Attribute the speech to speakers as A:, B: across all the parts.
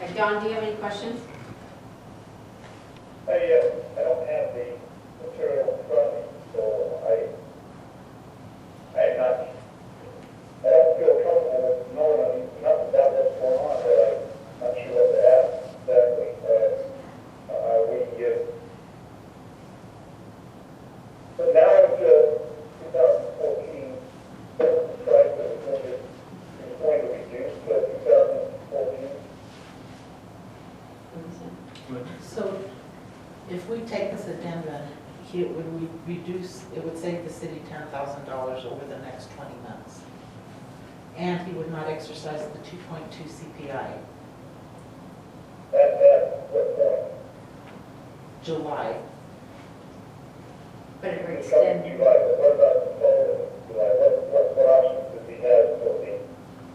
A: Okay, Don, do you have any questions?
B: I, uh, I don't have the material in front of me, so I, I am not, I don't feel comfortable with knowing nothing about what's going on, but I'm not sure what to ask exactly. Uh, Are we, uh, but now it's, uh, 2014, the price of the budget is going to reduce to 2014.
C: So if we take this addendum, here, would we reduce, it would save the city ten thousand dollars over the next twenty months. And he would not exercise the two point two CPI,
B: That, that, what point?
C: July.
A: But it would
B: Come
A: extend,
B: July, but what about the fall of July? What, what, what options does he have for the,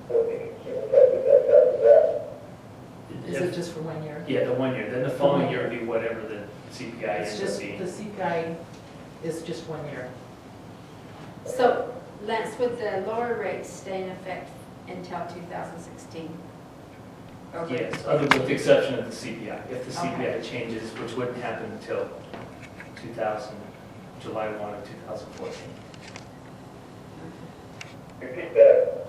B: for the consumer prices that's after that?
C: Is it just for one year?
D: Yeah, the one year, then the following year would be whatever the CPI
C: It's
D: is
C: just,
D: would
C: the
D: be.
C: CPI is just one year.
A: so Lance, would the lower rates stay in effect until 2016? Or would-
D: Yes, other with the exception of the CPI, if the
A: Okay.
D: CPI changes, which wouldn't happen until 2000, July 1 of 2014.
B: Repeat that,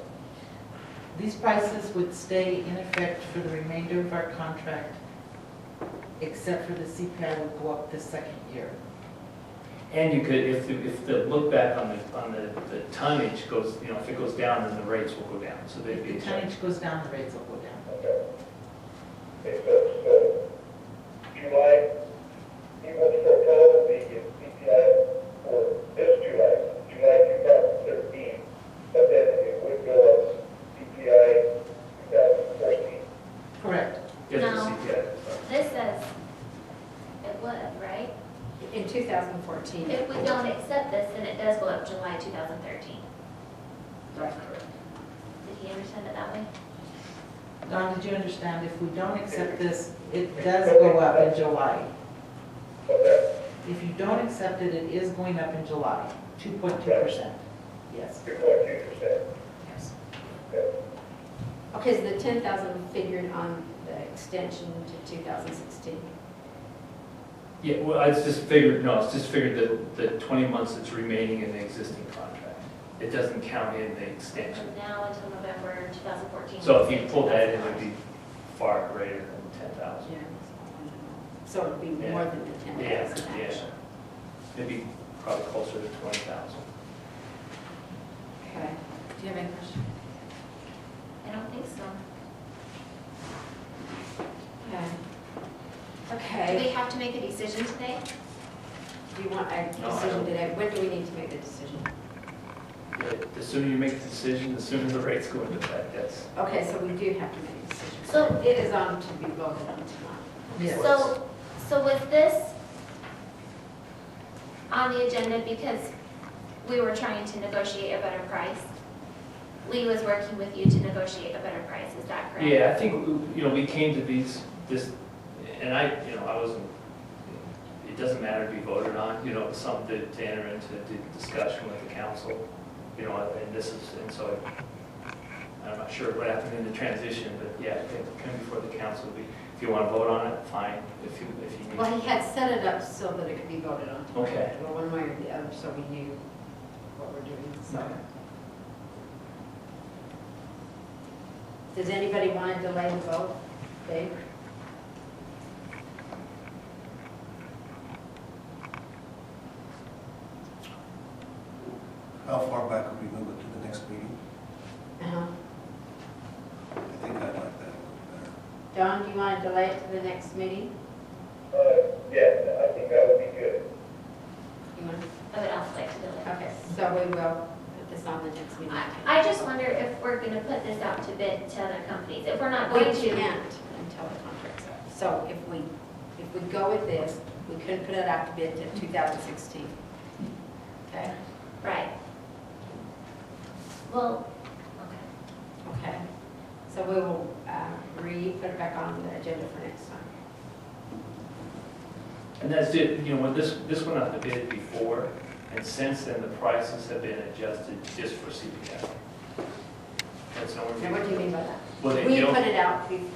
C: These prices would stay in effect for the remainder of our contract, except for the CPI would go up the second year.
D: And you could, if, the- if the look back on the, on the the tonnage goes, you know, if it goes down, then the rates will go down, so they'd
C: If
D: be
C: the
D: adjusted.
C: tonnage goes down, the rates will go down.
B: okay. Okay, so, so, July, he wants to follow the CPI for this July, July two thousand thirteen, but then it would go up CPI two thousand fourteen.
C: Correct.
D: If the
E: No.
D: CPI,
E: This says it would, right?
A: In 2014?
E: If we don't accept this, then it does go up July 2013.
A: That's correct.
E: Did he understand it that way?
C: Don, did you understand, if we don't accept this, it does go up in July.
B: Okay,
C: If you don't accept it, it is going up in July, 2.2%. Yes.
B: two point two percent,
C: Yes.
B: okay.
A: Okay, so the 10,000 figured on the extension to 2016?
D: yeah, well, I just figured, no, it's just figured that the 20 months that's remaining in the existing contract. It doesn't count in the extension.
E: From now until November 2014.
D: So if you pull that in, it would be far greater than ten thousand.
A: So it'd be more than the
D: Yeah,
A: 10,000
D: yeah.
A: actually?
D: It'd be probably closer to twenty thousand.
A: Okay. Do you have any questions?
E: I don't think so.
A: Okay.
E: Do
A: Okay,
E: we have to make a decision today?
A: do you want a
D: No, I
A: decision
D: don't.
A: today? When do we need to make the decision?
D: The sooner you make the decision, the sooner the rates go into effect, that's.
A: Okay, so we do have to make a decision.
E: So-
A: It is on to be voted on tonight.
C: Yes.
E: So, so was this on the agenda because we were trying to negotiate a better price? Lee was working with you to negotiate a better price, is that correct?
D: Yeah, I think, you know, we came to these, this, and I, you know, I wasn't, it doesn't matter to be voted on, you know, it's something to enter into the discussion with the council, you know, and this is, and so I- I'm not sure what happened in the transition, but yeah, it came before the council, We- if you want to vote on it, fine, if you, if you need.
A: Well, he had set it up so that it could be voted on tonight.
D: Okay.
A: Well, one way or the other, so we knew what we're doing, so.
D: Okay.
A: Does anybody want to delay the vote? Dave?
F: How far back could we move it to the next meeting?
A: Uh-huh.
F: I think I'd like that a little better.
A: Don, do you want to delay it to the next meeting?
B: Uh, yeah, I think that would be good.
A: You want?
E: I would also like to know that.
A: Okay, so we will put this on the next meeting.
E: I- I just wonder if we're gonna put this out to bid to other companies, if we're not
A: We
E: going
A: can't
E: to.
A: until the contract's up. So if we, if we go with this, we couldn't put it out to bid till 2016. Okay?
E: Right. Well, okay.
A: Okay. So we will uh, re-put it back on the agenda for next time.
D: And that's it, you know, when this, this went out to bid before, and since then, the prices have been adjusted just for CPI. That's nowhere.
A: And what do you mean by that?
D: Well, they-
A: We
D: they don't-
A: put it out before.